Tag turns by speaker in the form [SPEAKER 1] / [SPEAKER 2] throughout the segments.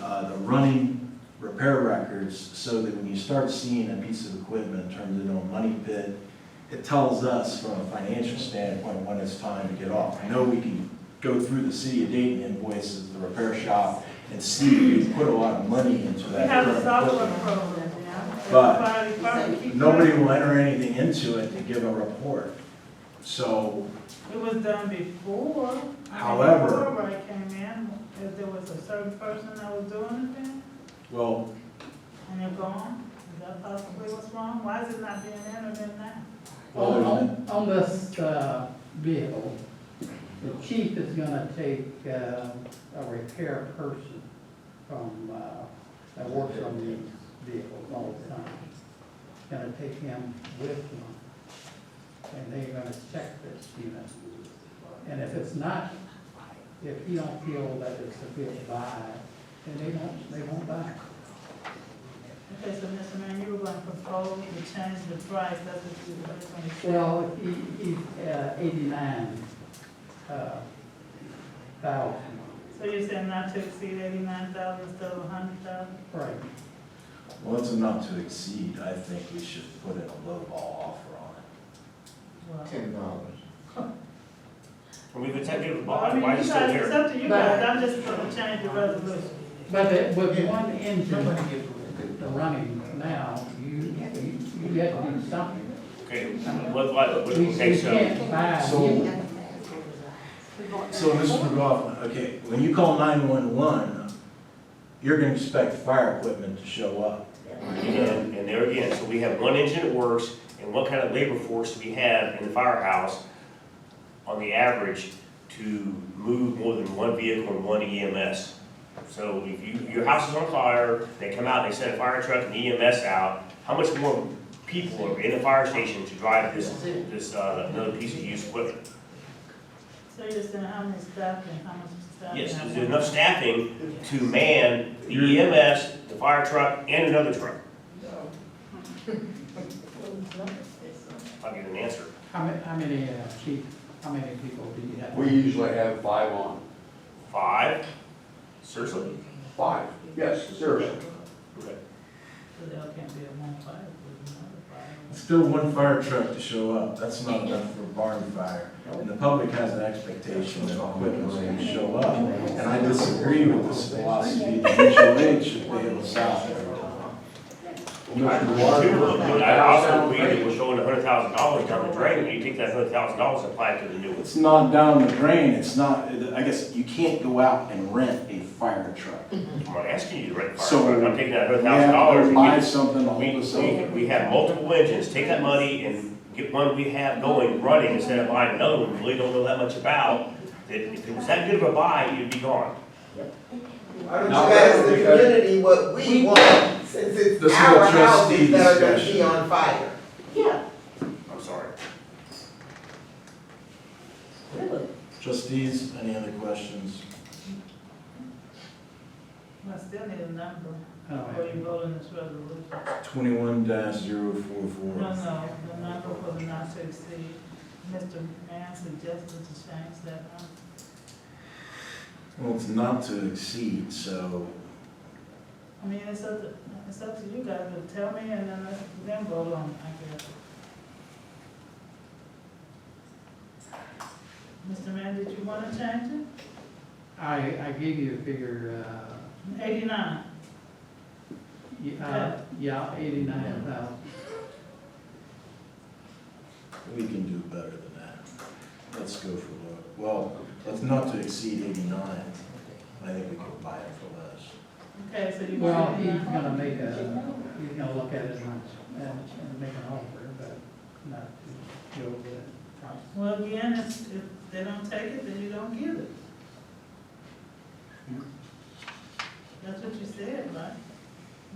[SPEAKER 1] uh, running repair records so that when you start seeing a piece of equipment turned into a money pit, it tells us from a financial standpoint when it's time to get off. I know we can go through the city of Dayton invoices, the repair shop, and see if we put a lot of money into
[SPEAKER 2] We
[SPEAKER 1] that.
[SPEAKER 2] have a
[SPEAKER 1] current
[SPEAKER 2] software
[SPEAKER 1] equipment.
[SPEAKER 2] program now.
[SPEAKER 1] But
[SPEAKER 2] Everybody- everybody keep
[SPEAKER 1] Nobody
[SPEAKER 2] track.
[SPEAKER 1] will enter anything into it to give a report. So
[SPEAKER 2] It was done before. I mean,
[SPEAKER 1] However-
[SPEAKER 2] Before I came in, if there was a certain person that was doing it then,
[SPEAKER 1] Well,
[SPEAKER 2] and they're gone, is that possibly what's wrong? Why is it not being entered in now?
[SPEAKER 1] Well,
[SPEAKER 3] On,
[SPEAKER 1] there's
[SPEAKER 3] on, on this, uh, bill, the chief is gonna take, uh, a repair person from, uh, that works on these vehicles all the time. Gonna take him with him, and they're gonna check this unit. And if it's not, if he don't feel that it's a good buy, then they don't, they won't buy it.
[SPEAKER 2] Okay, so Mr. Mayor, you were going to propose to change the price, that's what you were going to say.
[SPEAKER 3] Well, he, he's uh, eighty-nine, uh, thousand,
[SPEAKER 2] So you're saying not to exceed eighty-nine thousand instead of a hundred thousand?
[SPEAKER 3] right.
[SPEAKER 1] well, it's enough to exceed, I think we should put in a lowball offer on it.
[SPEAKER 2] Well,
[SPEAKER 4] Ten dollars.
[SPEAKER 5] We've attempted to
[SPEAKER 2] I
[SPEAKER 5] buy,
[SPEAKER 2] mean,
[SPEAKER 5] why
[SPEAKER 2] you
[SPEAKER 5] is it
[SPEAKER 2] guys,
[SPEAKER 5] still
[SPEAKER 2] it's
[SPEAKER 5] here?
[SPEAKER 2] up to you guys, I'm just going to change the resolution.
[SPEAKER 3] But it- with one engine
[SPEAKER 4] Nobody gets what they do.
[SPEAKER 3] running now, you, you, you have to do something.
[SPEAKER 5] Okay, what, what, what-
[SPEAKER 3] We we
[SPEAKER 5] Oh, okay, so,
[SPEAKER 3] can't buy
[SPEAKER 1] So- So, Mr. McGoffin, okay, when you call nine-one-one, you're gonna expect fire equipment to show up.
[SPEAKER 5] and and there again, so we have one engine that works, and what kind of labor force do we have in the firehouse on the average to move more than one vehicle and one EMS? So if you, your house is on fire, they come out, they send a fire truck and EMS out, how much more people are in the fire station to drive this, this, uh, another piece of used equipment?
[SPEAKER 2] So you're saying how many staff and how much staff?
[SPEAKER 5] Yes,
[SPEAKER 2] and
[SPEAKER 5] there's
[SPEAKER 2] how much-
[SPEAKER 5] enough staffing to man the EMS, the fire truck, and another truck. I'll give you an answer.
[SPEAKER 3] How many, how many, uh, chief, how many people do you have?
[SPEAKER 6] We usually have five on,
[SPEAKER 5] Five, seriously?
[SPEAKER 6] five, yes, seriously.
[SPEAKER 5] Okay.
[SPEAKER 2] So there can't be a one fire, there's another fire.
[SPEAKER 1] Still one fire truck to show up, that's not enough for a barn fire. And the public has an expectation that equipment's gonna show up. And I disagree with this philosophy that mutual aid should be able to solve everything.
[SPEAKER 6] Mr.
[SPEAKER 5] But
[SPEAKER 6] Water-
[SPEAKER 5] I also agree that we're showing hundred thousand dollars down the drain, and you take that hundred thousand dollars and apply it to the new one.
[SPEAKER 1] It's not down the drain, it's not, I guess, you can't go out and rent a fire truck.
[SPEAKER 5] I'm not asking you to rent a fire
[SPEAKER 1] So,
[SPEAKER 5] truck, I'm taking that hundred
[SPEAKER 1] We have
[SPEAKER 5] thousand
[SPEAKER 1] to
[SPEAKER 5] dollars and
[SPEAKER 1] Buy
[SPEAKER 5] get
[SPEAKER 1] something to
[SPEAKER 5] We,
[SPEAKER 1] hold us
[SPEAKER 5] we,
[SPEAKER 1] over.
[SPEAKER 5] we have multiple engines, take that money and get one we have going, running, instead of buying another one, we really don't know that much about. That if it was that good of a buy, you'd be gone.
[SPEAKER 4] Why don't you
[SPEAKER 6] Not
[SPEAKER 4] ask the
[SPEAKER 6] really, because-
[SPEAKER 4] community what we want, since
[SPEAKER 1] This
[SPEAKER 4] it's
[SPEAKER 1] is a
[SPEAKER 4] our
[SPEAKER 1] trustee
[SPEAKER 4] houses that are gonna
[SPEAKER 1] discussion.
[SPEAKER 4] be on fire?
[SPEAKER 2] Yeah,
[SPEAKER 5] I'm sorry.
[SPEAKER 2] really.
[SPEAKER 1] Trustees, any other questions?
[SPEAKER 2] I still need a number
[SPEAKER 3] I don't
[SPEAKER 2] before
[SPEAKER 3] have
[SPEAKER 2] you vote on this resolution.
[SPEAKER 1] Twenty-one dash zero four
[SPEAKER 2] No,
[SPEAKER 1] four.
[SPEAKER 2] no, the number for the not to exceed, Mr. Mann suggested to change that number.
[SPEAKER 1] Well, it's not to exceed, so
[SPEAKER 2] I mean, it's up to, it's up to you guys, but tell me and then, I- then vote on, it, I guess. Mr. Mann, did you wanna change it?
[SPEAKER 3] I, I gave you a figure, uh,
[SPEAKER 2] Eighty-nine,
[SPEAKER 3] y- uh, yeah, eighty-nine thousand.
[SPEAKER 1] we can do better than that. Let's go for, low- well, let's not to exceed eighty-nine. I think we can buy it for less.
[SPEAKER 2] okay, so you
[SPEAKER 3] Well,
[SPEAKER 2] want
[SPEAKER 3] he's
[SPEAKER 2] eighty-nine?
[SPEAKER 3] gonna make a, he's gonna look at it and, and- and make an offer, but not to go with it.
[SPEAKER 2] Well, again, if, if they don't take it, then you don't give it. That's what you said, right?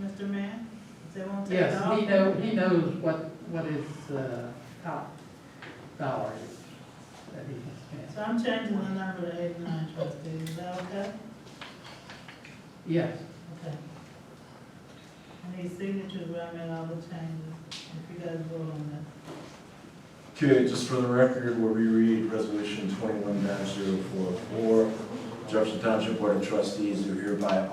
[SPEAKER 2] Mr. Mann, if they won't take it
[SPEAKER 3] Yes,
[SPEAKER 2] off.
[SPEAKER 3] he know, he knows what, what his, uh, top dollar is that he can spend.
[SPEAKER 2] So I'm changing the number to eighty-nine trustees, is that okay?
[SPEAKER 3] Yes,
[SPEAKER 2] Okay. I need signatures where I made all the changes, if you guys vote on that.
[SPEAKER 1] Okay, just for the record, we'll reread Resolution twenty-one 44 Jefferson Township Board of Trustees, who hereby